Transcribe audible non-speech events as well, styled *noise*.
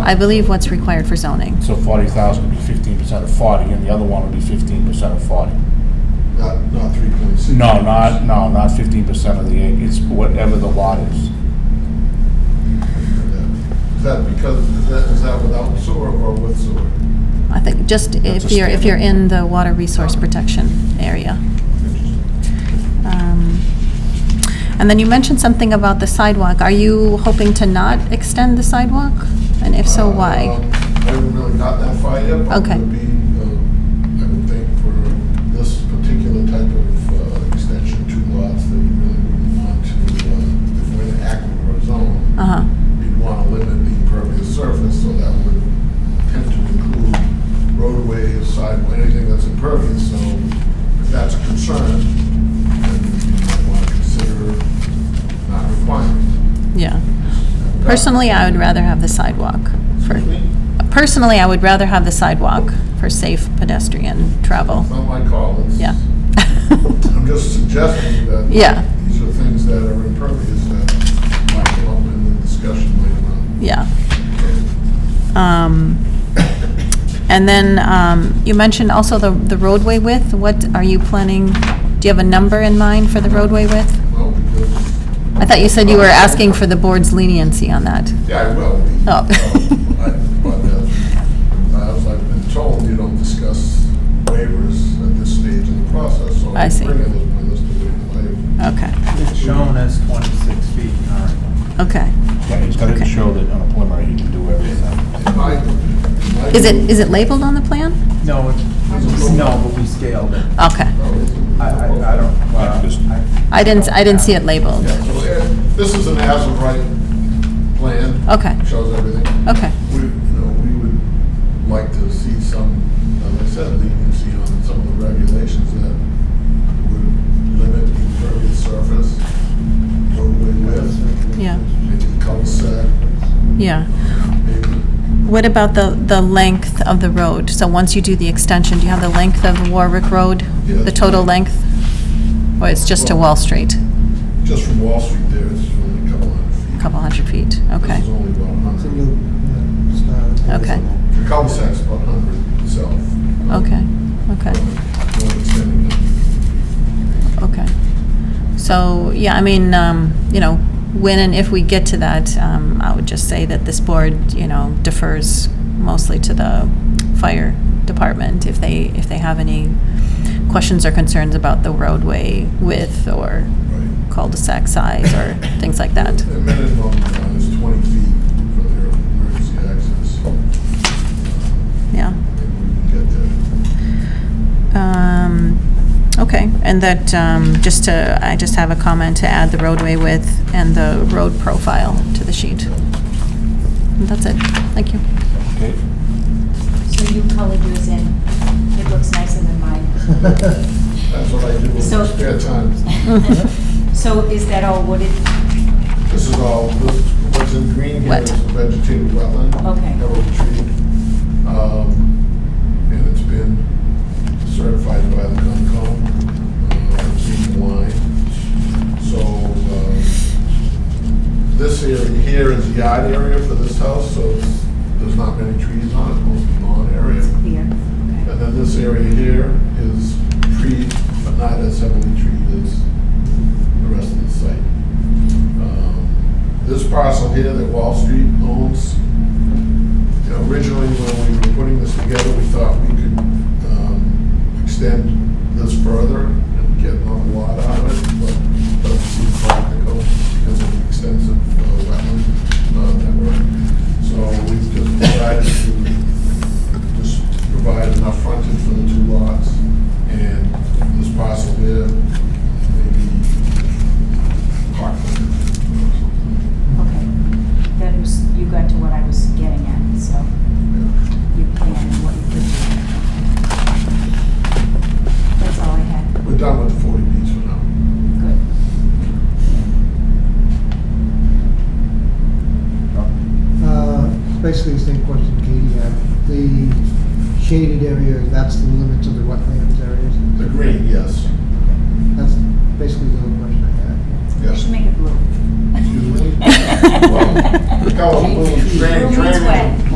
I believe what's required for zoning. So forty thousand would be fifteen percent of forty, and the other one would be fifteen percent of forty. Not, not three point six. No, not, no, not fifteen percent of the, acre. it's whatever the lot is. Is that because, is that, is that without sewer or with sewer? I think, just That's a Oh. if you're, if you're standard. in the water resource protection area. Um, And then you mentioned something about the sidewalk. Are you hoping to not extend the sidewalk? And if so, Uh, I why? haven't really got that far yet, but Okay. it would be, uh, I would think for this particular type of uh, extension, two lots, that you really wouldn't want to, uh, if we're in an aquifer zone, Uh-huh, you'd want to limit the impervious surface, so that would tend to include roadways, sidewalk, anything that's impervious, so if that's a concern, then you might want to consider not requiring. yeah. Personally, I would rather have the sidewalk for, Excuse me? personally, I would rather have the sidewalk for safe pedestrian travel. It's not my call. It's- Yeah. I'm just suggesting that. Yeah. These are things that are impervious that might come up in the discussion later on. *laughs* Yeah. Um, And then um, you mentioned also the the roadway width. What are you planning, do you have a number in mind for the roadway width? Well, because, I thought you said you were asking for the board's leniency on that. yeah, I will. be. Oh. Um, I- But uh, as I've been told, you don't discuss waivers at this stage in the process, so. I see. Bring it as my list of waivers later. Okay, It's shown as 26 feet in our plan. okay. Yeah, it's gotta Okay. show that on a preliminary, you can do everything. In my- in my Is view- it, is it labeled on the plan? No, it's, no, but we scaled it. Okay. Oh, is it? I, I I don't, Yeah, just- well, I- I didn't, I didn't see it labeled. Yeah, so uh, this is an as-of-right plan. Okay, Shows everything. okay, We, you know, we would like to see some, as I said, leniency on some of the regulations that would limit the impervious surface, roadway width. Yeah. Maybe the cul-de-sac, yeah. maybe. What about the, the length of the road? So once you do the extension, do you have the length of Warwick Road? The Yes. total length? Or it's just to Wall Street, Just from Wall Street there, it's only a couple hundred feet. a couple hundred feet? Okay. This is only about a It's a hundred. loop, yeah, it's not Okay. visible. The cul-de-sac's about a hundred itself. Um, Okay, okay, Not extending it. okay. So, yeah, I mean, um, you know, when and if we get to that, um, I would just say that this board, you know, defers mostly to the fire department if they, if they have any questions or concerns about the roadway width or Right. cul-de-sac size or things like that. The minimum uh, is 20 feet for their emergency access. Yeah. Maybe we can get there. Um, Okay, and that, um, just to, I just have a comment to add the roadway width and the road profile to the sheet. And That's it, thank you. Okay? So you colored yours in. It looks nicer than mine. *laughs* That's what I do in So- my spare time. So is that all wooded? This is all, this- what's in green here Wet. is a vegetated wetland. Okay. Arrow tree. Um, And it's been certified by the Concom. uh, I've seen the line. So um, this area here is yard area for this house, so it's- there's not many trees on it, mostly lawn area. It's clear. Okay. And then this area here is treed, but not as heavily treed as the rest of the site. Um, This parcel here that Wall Street owns, you know, originally when we were putting this together, we thought we could um, extend this further and get another lot out of it, but doesn't seem practical because of the extensive uh, wetland uh, network. So we just decided to just provide enough frontage for the two lots, and this parcel here, maybe park. Okay. That was, you got to what I was getting at, so you plan and what you could do. That's all I had. We're done with the 40 Bs for now. Good. Uh, Basically, the same question Katie had. The shaded area, that's the limits of the wetlands areas. The green, yes. That's basically the only question I had. You Yes. should make it blue. *laughs* Excuse me? Well, the color blue is drain- Room is drainage. wet.